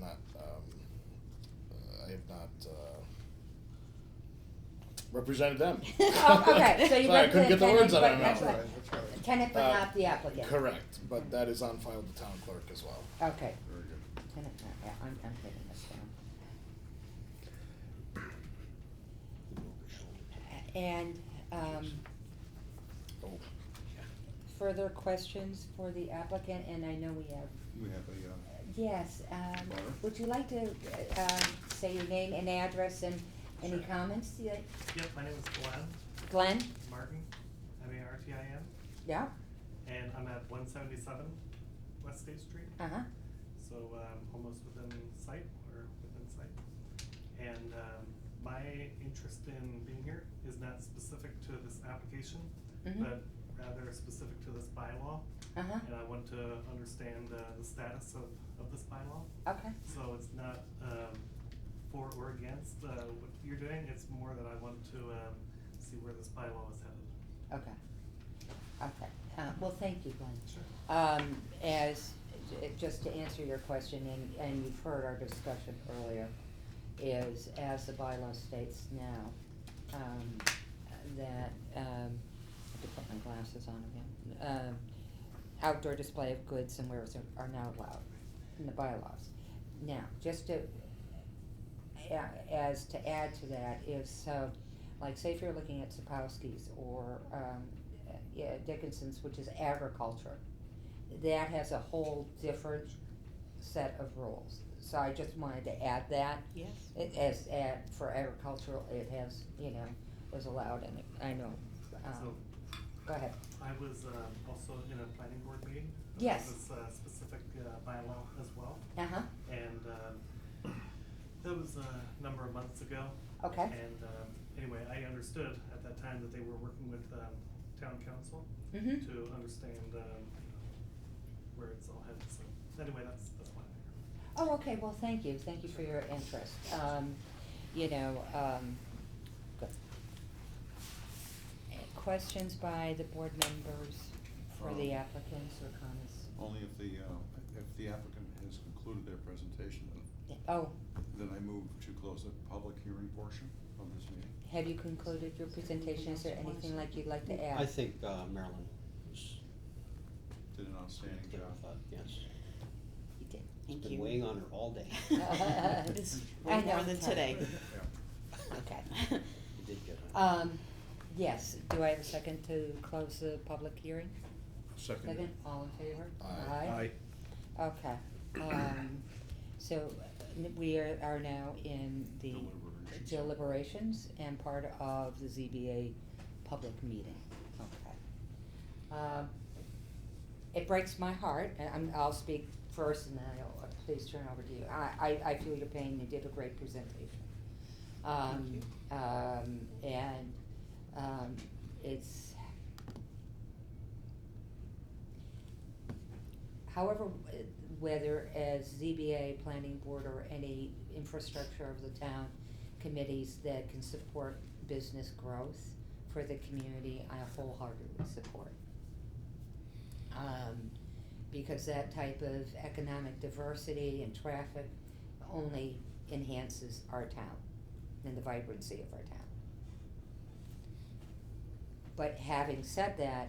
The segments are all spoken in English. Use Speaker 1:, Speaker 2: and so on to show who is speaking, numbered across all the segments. Speaker 1: not, um, uh, I have not, uh, represented them.
Speaker 2: Oh, okay, so you
Speaker 1: Sorry, I couldn't
Speaker 2: represent
Speaker 1: get the words out of
Speaker 2: tenant,
Speaker 1: my
Speaker 2: but,
Speaker 1: mouth.
Speaker 2: but,
Speaker 3: That's right.
Speaker 2: tenant but
Speaker 1: Uh,
Speaker 2: not the applicant,
Speaker 1: Correct, but that is on file with the town clerk as well.
Speaker 2: okay,
Speaker 3: Very good.
Speaker 2: tenant, not- yeah, I'm, I'm taking this down. And, um,
Speaker 1: Oh,
Speaker 2: further questions for the applicant, and I know we have,
Speaker 3: We have a, uh,
Speaker 2: yes, um,
Speaker 3: Laura?
Speaker 2: would you like to, uh, um, say your name and address and any
Speaker 4: Sure.
Speaker 2: comments, you like-
Speaker 4: Yep, my name is Glenn
Speaker 2: Glenn?
Speaker 4: Martin, M A R T I N,
Speaker 2: Yeah,
Speaker 4: and I'm at one seventy-seven West State Street,
Speaker 2: uh-huh,
Speaker 4: so um almost within sight or within sight. And um my interest in being here is not specific to this application,
Speaker 2: Mhm.
Speaker 4: but rather specific to this bylaw.
Speaker 2: uh-huh,
Speaker 4: And I want to understand uh the status of of this bylaw.
Speaker 2: okay,
Speaker 4: So it's not um, for or against uh, what you're doing, it's more that I want to um, see where this bylaw is headed.
Speaker 2: okay. Okay, uh, well, thank you, Glenn.
Speaker 4: Sure.
Speaker 2: Um, as, j- just to answer your question, and, and you've heard our discussion earlier, is as the bylaw states now, um, that, um, I have to put my glasses on again. Um, outdoor display of goods and wares are- are not allowed in the bylaws. Now, just to, yeah, as to add to that is, so, like, say if you're looking at Sapowski's or, um, yeah, Dickinson's, which is agriculture, that has a whole different set of rules. So I just wanted to add that.
Speaker 5: Yes.
Speaker 2: It as, at, for agricultural, it has, you know, was allowed and it- I know,
Speaker 4: So
Speaker 2: um, go ahead.
Speaker 4: I was um, also in a planning board meeting. about
Speaker 2: Yes.
Speaker 4: This uh, specific uh, bylaw as well,
Speaker 2: Uh-huh,
Speaker 4: and um, that was a number of months ago.
Speaker 2: okay,
Speaker 4: And um, anyway, I understood at that time that they were working with um, town council
Speaker 2: Mhm.
Speaker 4: to understand um, where it's all headed, so anyway, that's, that's why. I'm here.
Speaker 2: oh, okay, well, thank you, thank you for your interest, um, you know, um, good. Eh, Questions by the board members for the
Speaker 3: Um,
Speaker 2: applicants or comments?
Speaker 3: only if the, uh, if the applicant has concluded their presentation,
Speaker 2: Yeah, Oh,
Speaker 3: then I move to close the public hearing portion of this meeting.
Speaker 2: have you concluded your presentation, is there anything like you'd like to add?
Speaker 6: I think uh, Marilyn was
Speaker 3: Did an outstanding
Speaker 6: good
Speaker 3: job.
Speaker 6: with that, yes.
Speaker 2: You did.
Speaker 5: Thank
Speaker 6: Been
Speaker 5: you.
Speaker 6: weighing on her all day.
Speaker 5: It's way
Speaker 2: I
Speaker 5: more
Speaker 2: know,
Speaker 5: than
Speaker 2: tell.
Speaker 5: today.
Speaker 3: Yeah.
Speaker 2: Okay.
Speaker 6: You did good. huh?
Speaker 2: Um, yes, do I have a second to close the public hearing?
Speaker 3: Second.
Speaker 2: Second, all in favor?
Speaker 3: Aye.
Speaker 2: Okay, um, so n- we are, are now in the
Speaker 3: Deliberations.
Speaker 2: deliberations and part of the ZBA public meeting, okay. Um, it breaks my heart, and I'm, I'll speak first and then I'll, uh, please turn over to you. I, I, I feel your pain, you did a great presentation. Um, um, and, um, it's, However, w- whether as ZBA, planning board, or any infrastructure of the town committees that can support business growth for the community, I wholeheartedly support. Um, because that type of economic diversity and traffic only enhances our town and the vibrancy of our town. But having said that,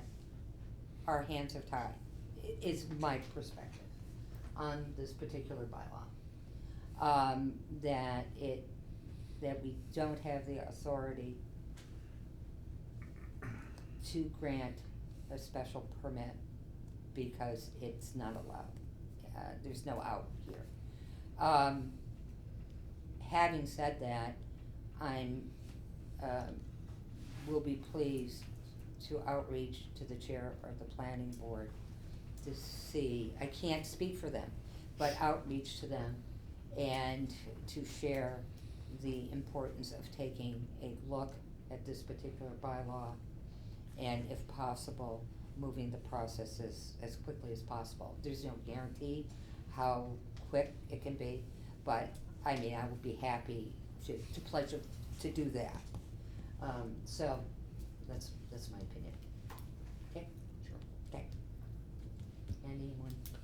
Speaker 2: our hands are tied, i- is my perspective on this particular bylaw. Um, that it, that we don't have the authority to grant a special permit because it's not allowed. Uh, there's no out here. Um, having said that, I'm, um, will be pleased to outreach to the chair of the planning board to see, I can't speak for them, but outreach to them and to share the importance of taking a look at this particular bylaw and if possible, moving the processes as quickly as possible. There's no guarantee how quick it can be, but I mean, I would be happy to, to pledge to do that. Um, so, that's, that's my opinion. Okay?
Speaker 3: Sure.
Speaker 2: Okay. Anyone